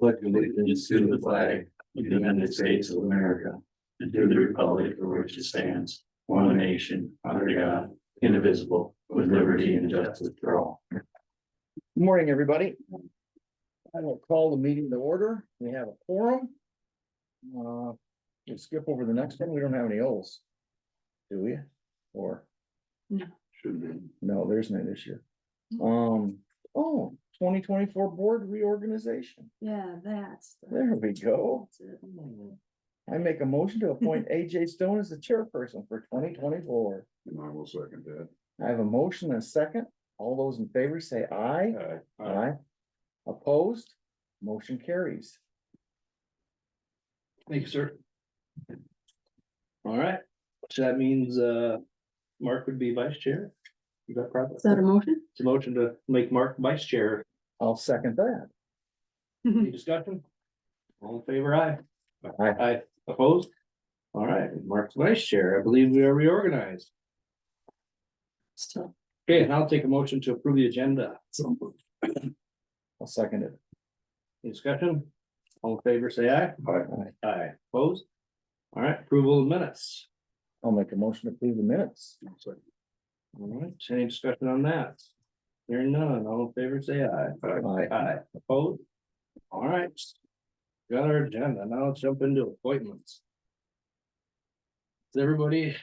Pledge allegiance to the flag of the United States of America and to the republic for which it stands, one nation, under God, indivisible, with liberty and justice for all. Good Morning, everybody. I will call the meeting to order. We have a forum. Uh, we'll skip over the next one. We don't have any O's. Do we? Or, Should be. no, there's no this year. Um, oh, 2024 board reorganization. Yeah, that's. the- There we go. that's it. I make a motion to appoint AJ Stone as the chairperson for twenty twenty-four. And I will second that. I have a motion and a second. All those in favor say aye. Aye. Opposed? Motion carries. Thank you, sir. All right, so that means, uh, Mark would be vice chair. Is that correct? Is that a motion? It's a motion to make Mark vice chair. I'll second that. Any discussion? All in favor, aye. Aye. Aye, opposed? All right, Mark's vice chair. I believe we are reorganized. Still. Okay, and I'll take a motion to approve the agenda. I'll second it. Any Discussion? All in favor, say aye. Aye. Aye. Aye, opposed? All right, approval of minutes. I'll make a motion to approve the minutes. All right, any discussion on that? Hearing none, all in favor, say aye. Aye. Aye, opposed? All right. Got our agenda, now let's jump into appointments. Is everybody?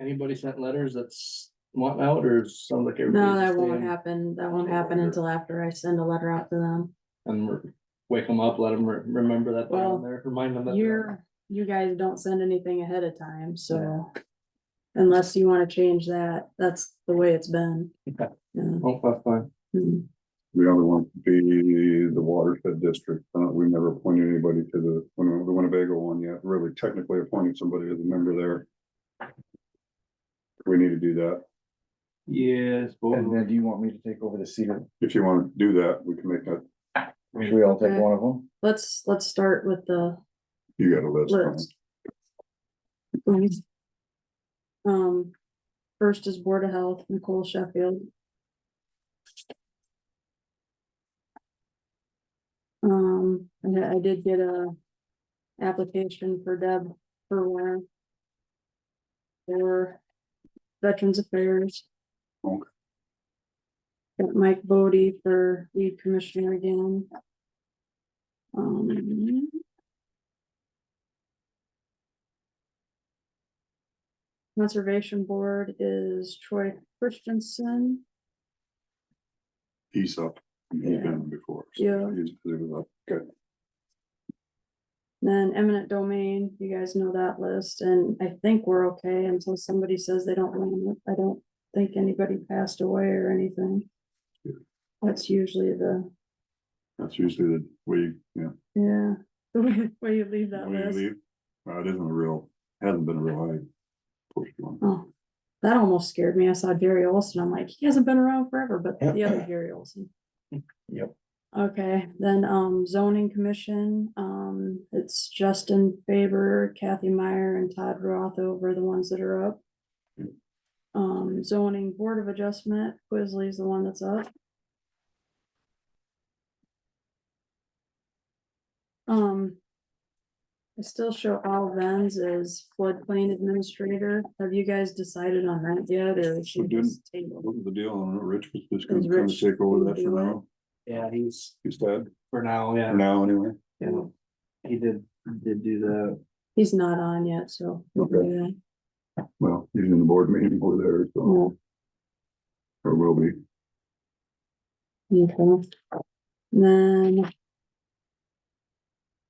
Anybody sent letters that's wanting out or sounds like everybody? No, that won't happen. That won't happen until after I send a letter out to them. And re- wake them up, let them remember that they're Well, on there, remind them that. they're on You're, you guys don't send anything ahead of time, so. Unless you wanna change that, that's the way it's been. Okay. Yeah. there. Oh, that's fine. Mm. The other one would be the watershed district. Uh, we never appointed anybody to the, Win- the Winnebago one yet, really technically appointed somebody as a member there. We need to do that. Yes, both of And them. then do you want me to take over the cedar? If you want to do that, we can make that, Should we all take Okay. one of them? Let's, let's start with the you got a list. huh? list. Please. Um, first is Board of Health, Nicole Sheffield. Um, and I I did get a application for Deb for one. For Veterans Affairs. Okay. Got Mike Bodie for lead commissioner again. Um. Conservation Board is Troy Christensen. He's up. He's been on before. so Yeah. he's- he was up. Good. Then eminent domain, you guys know that list, and I think we're okay until somebody says they don't want it. I don't think anybody passed away or anything. Yeah. That's usually the, That's usually the way, you- yeah. yeah, the way, way you leave that when you list. leave. Uh, it isn't a real, hasn't been a real high pushed one. Oh, that almost scared me. I saw Jerry Olson. I'm like, he hasn't been around forever, but the other Jerry Olson. Yep. Okay, then, um, zoning commission, um, it's Justin Faber, Kathy Meyer and Todd Rothover, the ones that are up. Yep. Um, zoning board of adjustment, Quisley's the one that's up. Um. I still show all vens as floodplain administrator. Have you guys decided on that yet or should we didn't. just table? What was the deal on Rich? Was just gonna Is kind of Rich take over that for gonna do now? Yeah, he's He's dead for now, yeah, for now anyway. yeah. He did, did do the, He's not on yet, so. we'll do Okay. that. Well, he's in the board meeting over there, so, Well, or will be. Okay. Then.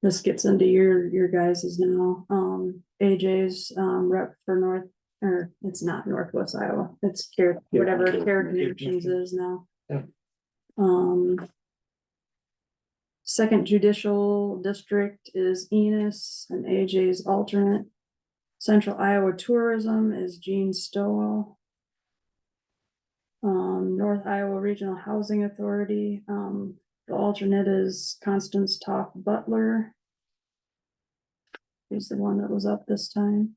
This gets into your, your guys's now, um, AJ's, um, rep for North, or it's not Northwest Iowa, it's care, Yeah, whatever Care- care Care connections Connections. is now. Yeah. Um. Second judicial district is Enos and AJ's alternate. Central Iowa Tourism is Gene Stowell. Um, North Iowa Regional Housing Authority, um, the alternate is Constance Toff Butler. She's the one that was up this time.